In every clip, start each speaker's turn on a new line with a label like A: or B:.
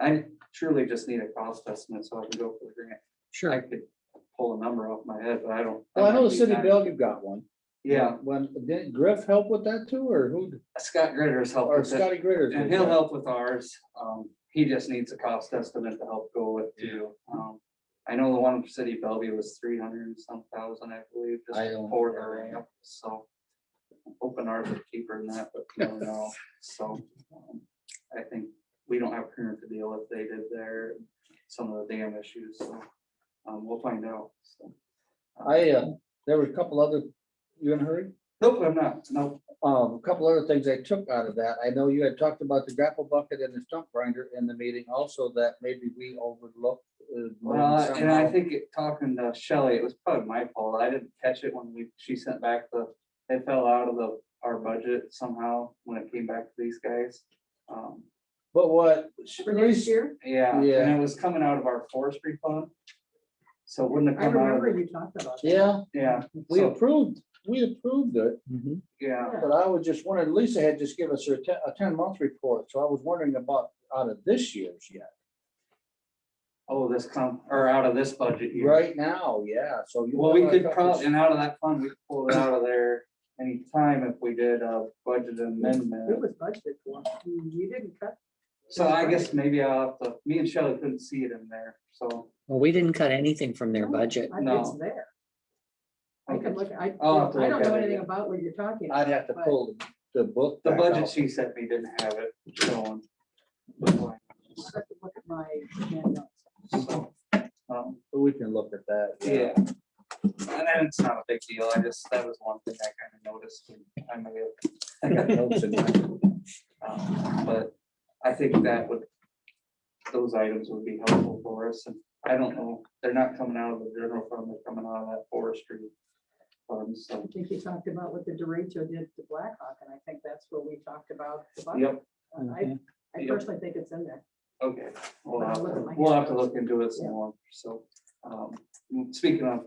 A: I truly just need a cost estimate so I can go for the grant. I
B: Sure.
A: could pull a number off my head, but I don't.
B: Well, I know the
A: I'm
B: city
A: not-
B: of Bellevue got one.
A: Yeah,
B: When, did Griff help with that too, or who,
A: Scott Gritter is helping.
B: or Scotty Gritter?
A: And he'll help with ours. Um, he just needs a cost estimate to help go with too. Um, I know the one for city of Bellevue was three hundred and some thousand, I believe,
B: I
A: just
B: don't-
A: for the ramp, so. I'm Hoping ours is cheaper than that, but no, no, so. um, I think we don't have current to deal with. They did their, some of the dam issues, so. Um, we'll find out, so.
B: I, uh, there were a couple other, you in a hurry?
A: Nope, I'm not. Nope.
B: Um, a couple other things I took out of that. I know you had talked about the grapple bucket and the stump grinder in the meeting also that maybe we overlooked. uh, maybe
A: Well, and I
B: somehow.
A: think it, talking to Shelley, it was probably my fault. I didn't catch it when we, she sent back the, it fell out of the, our budget somehow when it came back to these guys. Um,
B: But what,
C: For next year?
A: yeah, and
B: Yeah.
A: it was coming out of our forestry fund. So it wouldn't have
C: I
A: come out of,
C: remember
A: the-
C: you talked about. that.
B: yeah,
A: yeah,
B: we
A: so,
B: approved, we approved it,
A: yeah,
B: but I was just wondering, Lisa had just given us her te- a ten month report, so I was wondering about out of this year's yet.
A: oh, this come, or out of this budget year.
B: Right now, yeah, so. you
A: Well, we
B: have a
A: could
B: couple-
A: probably, and out of that fund, we could pull it out of there anytime if we did a budget amendment.
C: It was budgeted for. You didn't cut.
A: So I guess maybe I'll, have to. me and Shelley couldn't see it in there, so.
D: Well, we didn't cut anything from their
C: No,
D: budget.
C: I-
A: No.
C: It's there. I
A: okay.
C: can look, I, I
A: I'll have
C: don't
A: to look at
C: know
A: it,
C: anything
A: yeah.
C: about what you're talking.
B: I'd have to
C: but-
B: pull the book.
A: The
B: back
A: budget
B: out.
A: she sent me didn't have it shown.
C: I'll have to Look at my handouts.
A: So, um,
B: But We can look at that.
A: Yeah. And then it's not a big deal. I just, that was one thing I kind of noticed. and I may have,
B: I got notes in mind.
A: um, But I think that would, those items would be helpful for us. And I don't know, they're not coming out of the general fund, they're coming out of that forestry fund,
C: I
A: so.
C: think you talked about what the derecho did to Blackhawk, and I think that's where we talked about. the budget.
A: Yep, Mm-hmm.
C: And I, I
A: Yep.
C: personally think it's in there.
A: Okay, we'll
C: I'll
A: have,
C: look at
A: to-
C: my
A: we'll have to
C: handouts.
A: look into it some more, so, um, mm, speaking of.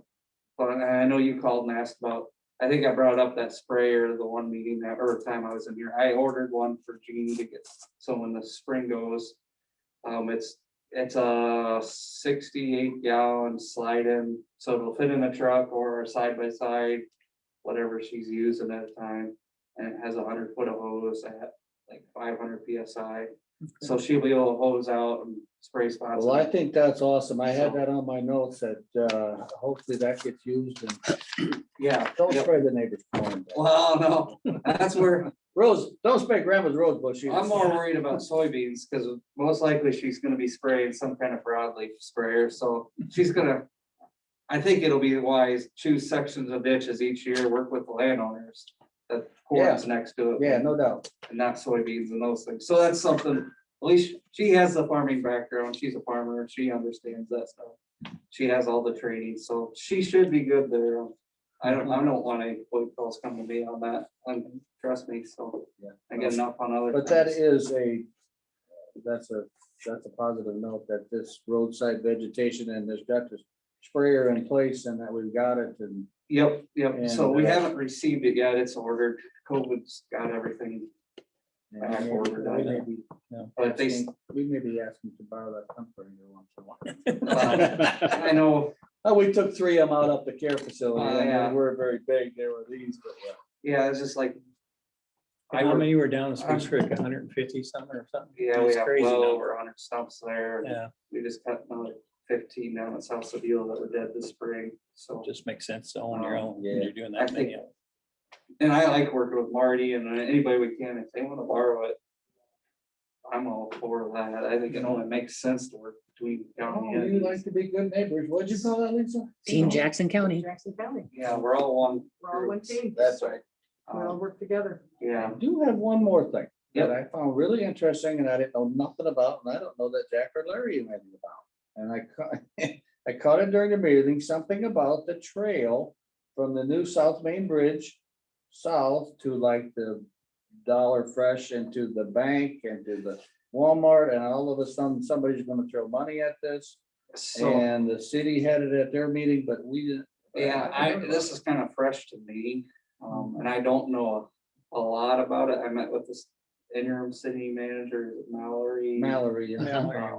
A: But I I know you called and asked about, I think I brought up that sprayer, the one meeting that, or time I was in here, I ordered one for Jeannie to get, so when the spring goes. Um, it's, it's a sixty-eight gallon slide in, so it'll fit in a truck or a side by side, whatever she's using at a time. And it has a hundred foot of hose at like five hundred PSI. So she'll be able to hose out and spray spots.
B: Well, I think that's awesome. I had that on my notes that uh, hopefully that gets used and
A: Yeah.
B: don't
A: yep.
B: spray the neighbor's corn.
A: Well, no, that's where,
B: Rose, don't spray grandma's rose bush. either.
A: I'm more worried about soybeans, because most likely she's gonna be spraying some kind of broadleaf sprayer, so she's gonna. I think it'll be wise, choose sections of ditches each year, work with the landowners, that corn's next to it.
B: Yeah, no doubt.
A: and not soybeans and those things. So that's something, at least she has the farming background. She's a farmer. and She understands that stuff. She has all the training, so she should be good there. I don't, I don't want any phone calls coming to me on that. um, Trust me, so
B: Yeah.
A: I get enough on other.
B: But that
A: things.
B: is a, that's a, that's a positive note that this roadside vegetation and there's got this sprayer in place and that we've got it and
A: Yep, yep. So
B: And,
A: we
B: uh,
A: haven't received it yet. It's ordered. COVID's got everything, I have ordered
B: We may
A: that.
B: be- yeah,
A: but they, s-
B: asking- We may be asking to borrow that pump for you once in a while.
A: uh, I know,
B: Oh, we took three of them out up the care facility,
A: Oh,
B: and
A: yeah.
B: they were very big, there were these, but uh,
A: yeah, it's just like. I
E: How
A: work-
E: many were down in Spruce Creek, hundred and fifty something or something?
A: Yeah, we
E: It's
A: have
E: crazy
A: well
E: now.
A: over hundred stumps there. and
E: Yeah,
A: we just cut another fifteen down at South Seville that were dead this spring, so.
E: just makes sense to own your
A: Um,
E: own,
B: yeah.
E: when you're doing
A: I
E: that
A: think-
E: many. of
A: And I like working with Marty and uh, anybody we can, if they wanna borrow it. I'm all for that, I think it only makes sense to work between county
B: oh, you like
A: and,
B: to be good neighbors, what'd you call that, Lisa?
D: Team
A: No.
D: Jackson County.
C: Jackson County,
A: yeah, we're all one.
C: we're all one
A: group,
C: team.
B: That's right.
C: We all
A: um,
C: work together.
B: I
A: Yeah,
B: do have one more thing
A: Yep.
B: that I found really interesting and I didn't know nothing about, and I don't know that Jack or Larry knew anything about. And I caught, I caught it during the meeting, something about the trail from the new South Main Bridge south to like the Dollar Fresh and to the bank and to the Walmart, and all of a sudden, somebody's gonna throw money at this.
A: so,
B: And the city had it at their meeting, but we didn't.
A: yeah,
B: uh,
A: I, this is kind of fresh to me, um, and I don't know a lot about it, I met with this interim city manager, Mallory. Um,
B: Mallory. yeah.
E: you.
A: Yeah.